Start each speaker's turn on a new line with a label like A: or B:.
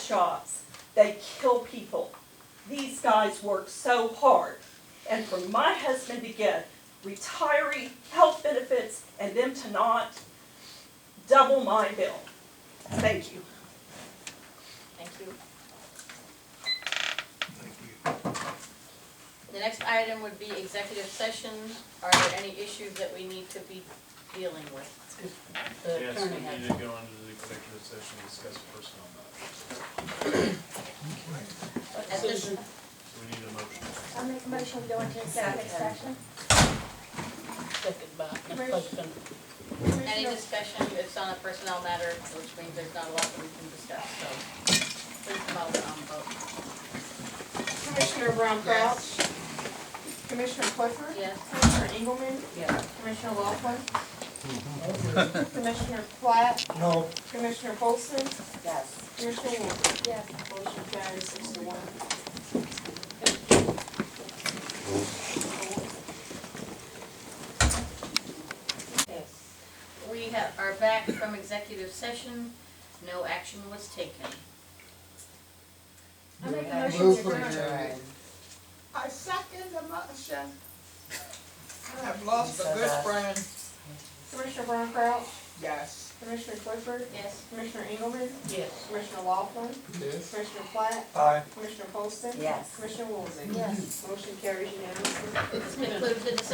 A: shots, they kill people. These guys work so hard. And for my husband to get retiree health benefits and them to not, double my bill. Thank you.
B: Thank you.
C: Thank you.
B: The next item would be executive session. Are there any issues that we need to be dealing with? The
D: Yes, we
B: attorney has.
D: need to go into the executive session and discuss personnel matters.
B: At this-
D: We need a motion.
E: I make a motion to go into executive session.
F: Second by Ms.
E: Where's-
F: Poston.
B: Any
E: Commissioner-
B: discussion, it's on a personnel matter, which means there's not a lot that we can discuss, so please come out and vote.
E: Commissioner Brown Crouch. Commissioner Clifford.
B: Yes?
E: Commissioner Engelmann.
F: Yes.
E: Commissioner Laughlin. Commissioner Platt.
C: No,
E: Commissioner Folsen.
F: Yes.
E: Commissioner Wood. Yes. Motion carries six to one.
F: Yes.
B: We have, are back from executive session, no action was taken.
E: I make a
F: Move
E: motion to
F: for
E: adjourn.
F: adjourn.
G: I second the motion. I have lost a good friend,
E: Commissioner Brown Crouch.
G: yes.
E: Commissioner Clifford.
B: Yes?
E: Commissioner Engelmann.
F: Yes.
E: Commissioner Laughlin.
C: yes,
E: Commissioner Platt.
C: aye.
E: Commissioner Folsen.
F: Yes.
E: Commissioner Woolsey.
B: Yes.
E: Motion carries unanimously.
B: This concludes the discussion.